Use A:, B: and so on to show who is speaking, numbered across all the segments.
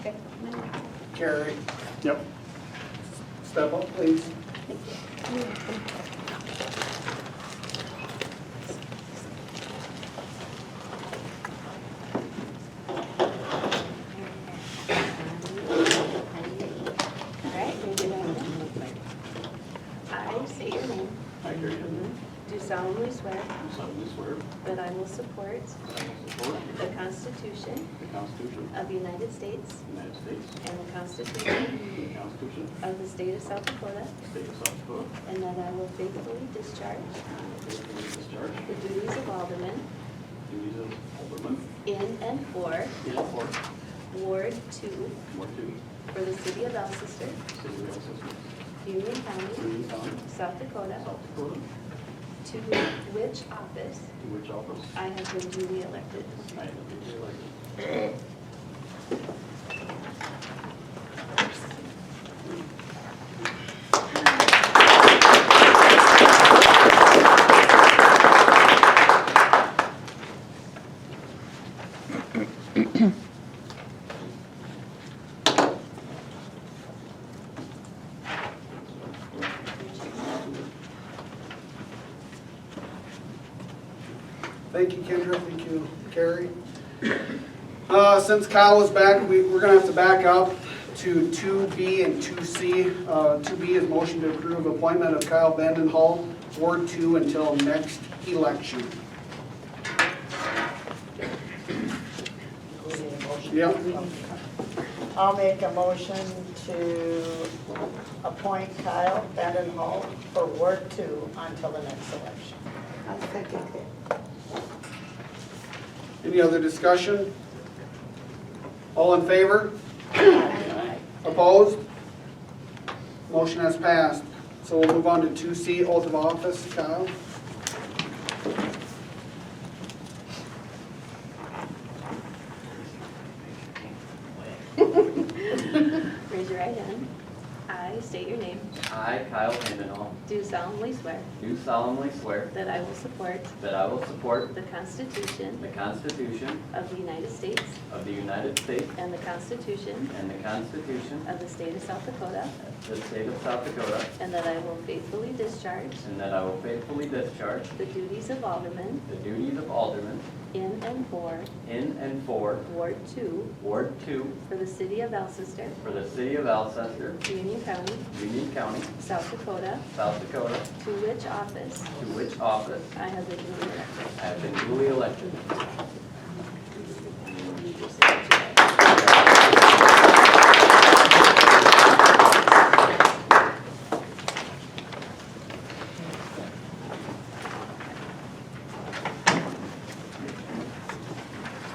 A: Okay.
B: Carrie,
C: Yep.
B: step up, please.
A: All right, raise your right hand. I say your name.
D: I, Gary Hinman,
A: Do solemnly swear
D: do solemnly swear
A: that I will support
D: that I will support
A: the Constitution
D: the Constitution
A: of the United States
D: of the United States
A: and the Constitution
D: and the Constitution
A: of the State of South Dakota,
D: of the State of South Dakota,
A: and that I will faithfully discharge
D: and I will faithfully discharge
A: the duties of alderman
D: the duties of Alderman
A: in and for
D: in and for
A: Ward Two
D: Ward Two,
A: for the city of Alcester,
D: City of Alcester,
A: Union County,
D: Union County,
A: South Dakota,
D: South Dakota,
A: to which office
D: to which office
A: I have been duly elected.
D: I am duly elected.
B: Thank you, Kendra, thank you, Carrie. Uh, Since Kyle is back, we- we're going to have to back up to 2B and 2C. Uh, 2B is motion to approve appointment of Kyle Vandenhall, Ward 2, until next election.
E: We need a motion.
B: Yep.
E: I'll make a motion to appoint Kyle Vandenhall for Ward Two until the next election.
B: Any other discussion? All in favor? Opposed? Motion has passed. So we'll move on to 2C, oath of office. Kyle?
A: Raise your right hand. I state your name.
F: I, Kyle Handenall,
A: Do solemnly swear
F: do solemnly swear
A: that I will support
F: that I will support
A: the Constitution
F: the Constitution
A: of the United States
F: of the United States
A: and the Constitution
F: and the Constitution
A: of the State of South Dakota,
F: of the State of South Dakota,
A: and that I will faithfully discharge
F: and that I will faithfully discharge
A: the duties of alderman
F: the duties of Alderman
A: in and for
F: in and for
A: Ward Two
F: Ward Two
A: for the city of Alcester,
F: for the City of Alcester,
A: Union County,
F: Union County,
A: South Dakota,
F: South Dakota,
A: to which office
F: to which office
A: I have been duly elected.
F: I have been duly elected.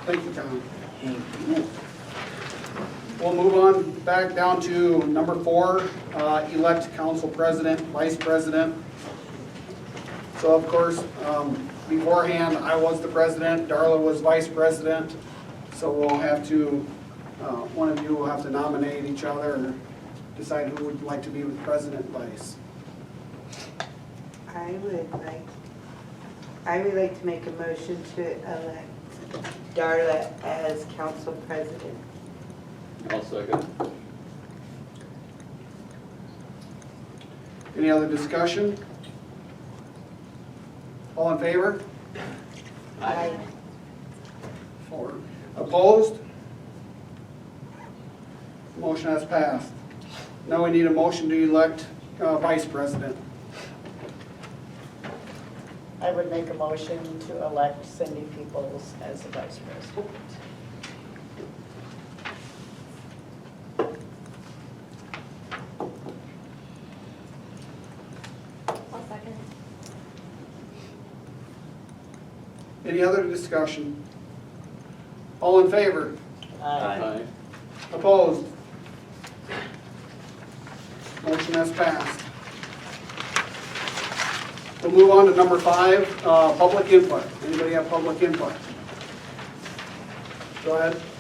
B: Thank you, Tom. We'll move on back down to number four, uh, elect council president, vice president. So of course, um, beforehand, I was the president, Darla was vice president. So we'll have to, uh, one of you will have to nominate each other and decide who would like to be with president vice.
G: I would like, I would like to make a motion to elect Darla as council president.
F: I'll second.
B: Any other discussion? All in favor?
G: I
B: Four. Opposed? Motion has passed. Now we need a motion to elect uh, vice president.
E: I would make a motion to elect Cindy Peoples as the vice president.
A: I'll second.
B: Any other discussion? All in favor?
E: Aye.
F: Aye.
B: Opposed? Motion has passed. We'll move on to number five, uh, public input. Anybody have public input? Go ahead.